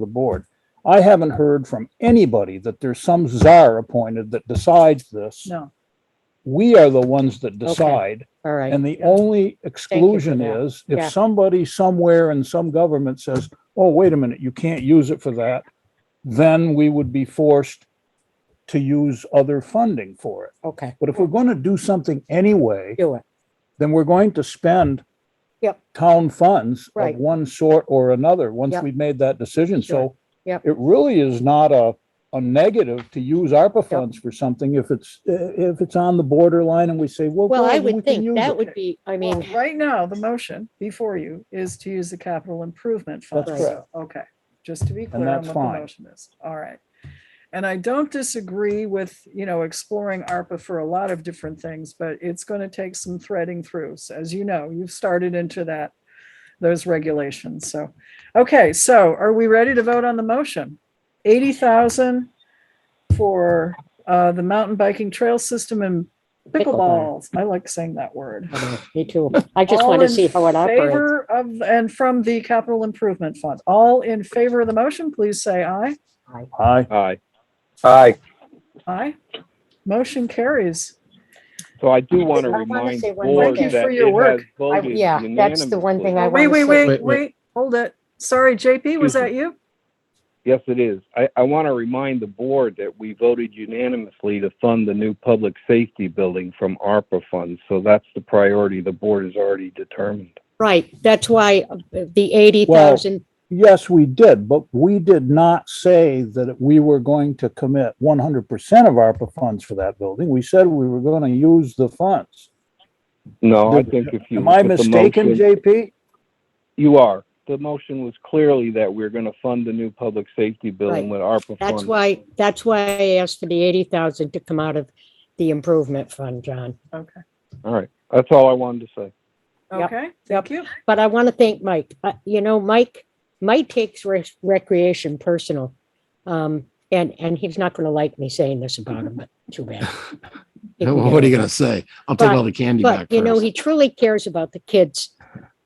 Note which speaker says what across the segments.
Speaker 1: the board. I haven't heard from anybody that there's some czar appointed that decides this.
Speaker 2: No,
Speaker 1: We are the ones that decide.
Speaker 3: All right,
Speaker 1: And the only exclusion
Speaker 3: that.
Speaker 1: is
Speaker 3: Yeah.
Speaker 1: if somebody somewhere in some government says, oh, wait a minute, you can't use it for that, then we would be forced to use other funding for it.
Speaker 3: okay,
Speaker 1: But if we're going to do something anyway,
Speaker 3: do it.
Speaker 1: then we're going to spend
Speaker 3: Yep.
Speaker 1: town funds of
Speaker 3: Right.
Speaker 1: one sort or another, once
Speaker 3: Yep.
Speaker 1: we've made that decision. So
Speaker 3: Sure. Yep.
Speaker 1: it really is not a, a negative to use ARPA funds for something if it's, uh, if it's on the borderline and we say, well.
Speaker 3: Well,
Speaker 1: good,
Speaker 3: I
Speaker 1: then we
Speaker 3: would
Speaker 1: can
Speaker 3: think
Speaker 1: use
Speaker 3: that
Speaker 1: it.
Speaker 3: would be, I
Speaker 2: well,
Speaker 3: mean,
Speaker 2: right now, the motion before you is to use the capital improvement fund.
Speaker 1: That's
Speaker 2: So,
Speaker 1: correct.
Speaker 2: Okay, just to be clear on
Speaker 1: that's
Speaker 2: what the
Speaker 1: fine.
Speaker 2: motion is. All right. And I don't disagree with, you know, exploring ARPA for a lot of different things, but it's going to take some threading through. So As you know, you've started into that, those regulations. So, okay, so are we ready to vote on the motion? 80,000 for uh, the mountain biking trail system and
Speaker 3: Pickleball.
Speaker 2: pickleballs. I like saying that word.
Speaker 3: I don't know, me too. I just want to
Speaker 2: All in
Speaker 3: see how it operates.
Speaker 2: Favor of, and from the capital improvement fund. All in favor of the motion, please say aye.
Speaker 1: Aye.
Speaker 4: Aye. Aye.
Speaker 2: Aye. Motion carries.
Speaker 4: So I do want to
Speaker 3: I wanna
Speaker 4: remind
Speaker 3: say
Speaker 4: the
Speaker 3: one
Speaker 4: board
Speaker 2: thing. Thank you
Speaker 4: that
Speaker 2: for your
Speaker 4: it has
Speaker 2: work.
Speaker 3: I-
Speaker 4: voted
Speaker 3: Yeah, that's the one thing I want
Speaker 4: unanimously.
Speaker 2: Oh, Wait,
Speaker 3: to
Speaker 2: wait,
Speaker 3: say.
Speaker 2: wait, wait, hold it. Sorry, JP, was
Speaker 4: Excuse me.
Speaker 2: that you?
Speaker 4: Yes, it is. I, I want to remind the board that we voted unanimously to fund the new public safety building from ARPA funds. So that's the priority the board has already determined.
Speaker 3: Right, that's why uh, the eighty thousand,
Speaker 1: Yes, we did, but we did not say that we were going to commit one hundred percent of ARPA funds for that building. We said we were going to use the funds.
Speaker 4: No, I
Speaker 1: Did-
Speaker 4: think if you.
Speaker 1: Am I
Speaker 4: look at the
Speaker 1: mistaken,
Speaker 4: motion-
Speaker 1: JP?
Speaker 4: You are. The motion was clearly that we're going to fund the new public safety building with ARPA funds.
Speaker 3: that's why, that's why I asked for the eighty thousand to come out of the improvement fund, John.
Speaker 2: Okay,
Speaker 4: All right. That's all I wanted to say.
Speaker 3: Yep,
Speaker 2: okay, thank you.
Speaker 3: But I want to thank Mike. Uh, You know, Mike, Mike takes rec- recreation personal. Um, and, and he's not going to like me saying this about him, but too bad. He can
Speaker 5: Well,
Speaker 3: get
Speaker 5: Oh, What are you
Speaker 3: it.
Speaker 5: gonna say? I'll take
Speaker 3: But-
Speaker 5: all the candy back
Speaker 3: But, you know,
Speaker 5: first.
Speaker 3: he truly cares about the kids.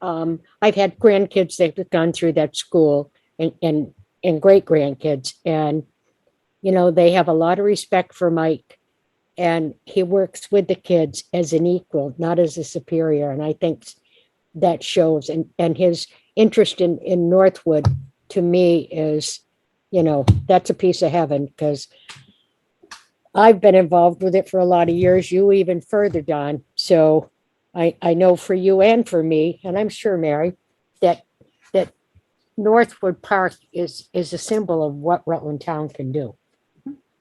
Speaker 3: Um, I've had grandkids that have gone through that school and, and, and great grandkids. And, you know, they have a lot of respect for Mike. And he works with the kids as an equal, not as a superior. And I think that shows and, and his interest in, in Northwood to me is, you know, that's a piece of heaven because I've been involved with it for a lot of years, you even further, Don. So I, I know for you and for me, and I'm sure Mary, that, that Northwood Park is, is a symbol of what Rutland Town can do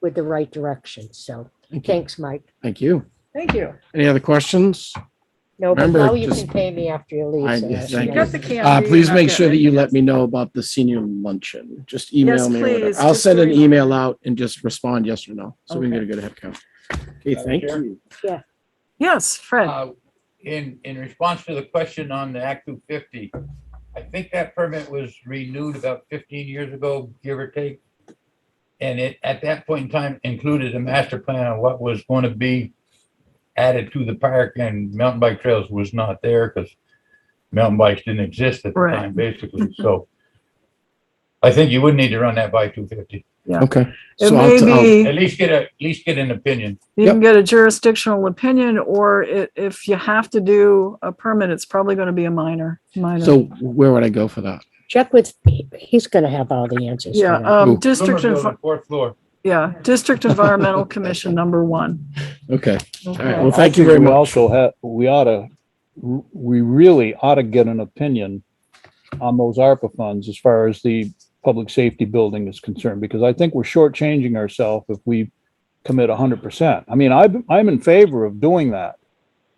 Speaker 3: with the right direction. So
Speaker 5: Thank you.
Speaker 3: thanks, Mike.
Speaker 5: Thank you.
Speaker 2: Thank you.
Speaker 5: Any other questions?
Speaker 3: No, but
Speaker 5: Remember,
Speaker 3: now you
Speaker 5: just-
Speaker 3: can pay me after you
Speaker 5: I-
Speaker 3: leave. so
Speaker 5: yeah,
Speaker 3: that's
Speaker 5: thank
Speaker 2: You
Speaker 5: you.
Speaker 3: nice.
Speaker 2: got the
Speaker 5: Uh,
Speaker 2: candy.
Speaker 5: please
Speaker 2: You're
Speaker 5: make
Speaker 2: not
Speaker 5: sure that
Speaker 2: getting
Speaker 5: you
Speaker 2: it.
Speaker 5: let me know about the senior luncheon. Just email
Speaker 2: Yes,
Speaker 5: me. or whatever.
Speaker 2: please,
Speaker 5: I'll
Speaker 2: just
Speaker 5: send
Speaker 2: a
Speaker 5: an
Speaker 2: reminder.
Speaker 5: email out and just respond yes or no. So we can get
Speaker 2: Okay.
Speaker 5: a good head count. Okay, thank you.
Speaker 2: Yes, Fred,
Speaker 6: Uh, In, in response to the question on the Act 250, I think that permit was renewed about 15 years ago, give or take. And it, at that point in time, included a master plan on what was going to be added to the park and mountain bike trails was not there because mountain bikes didn't exist at the
Speaker 2: Right.
Speaker 6: time, basically. So I think you would need to run that by 250.
Speaker 5: Okay.
Speaker 2: it
Speaker 5: So I'll- I'll-
Speaker 2: may
Speaker 6: At
Speaker 2: be,
Speaker 6: least get a, at least get an opinion.
Speaker 2: you
Speaker 5: Yep.
Speaker 2: can get a jurisdictional opinion, or i- if you have to do a permit, it's probably going to be a minor, minor.
Speaker 5: So where would I go for that?
Speaker 3: Check with, he- he's going to have all the answers. for
Speaker 2: Yeah,
Speaker 3: that.
Speaker 2: um,
Speaker 5: Ooh.
Speaker 2: district,
Speaker 6: Lumber
Speaker 2: Envi-
Speaker 6: building, Fourth floor.
Speaker 2: yeah, District Environmental Commission, number one.
Speaker 5: Okay.
Speaker 2: uh,
Speaker 5: All right. Well,
Speaker 2: Okay.
Speaker 5: thank
Speaker 1: I
Speaker 5: you
Speaker 1: think
Speaker 5: very
Speaker 1: we
Speaker 5: much.
Speaker 1: Also have, we ought to, we really ought to get an opinion on those ARPA funds as far as the public safety building is concerned, because I think we're shortchanging ourselves if we commit hundred percent. I mean, I, I'm in favor of doing that.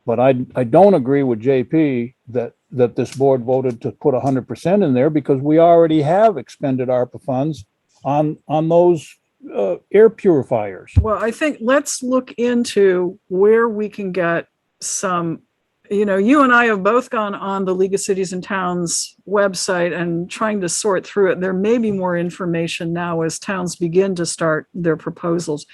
Speaker 1: But I, I don't agree with JP that, that this board voted to put hundred percent in there because we already have expended ARPA funds on, on those, uh, air purifiers.
Speaker 2: Well, I think let's look into where we can get some, you know, you and I have both gone on the League of Cities and Towns website and trying to sort through it. There may be more information now as towns begin to start their proposals.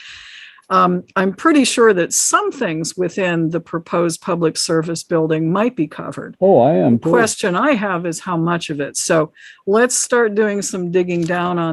Speaker 2: Um, I'm pretty sure that some things within the proposed public service building might be covered.
Speaker 1: Oh, I am too.
Speaker 2: Question I have is how much of it? So let's start doing some digging down on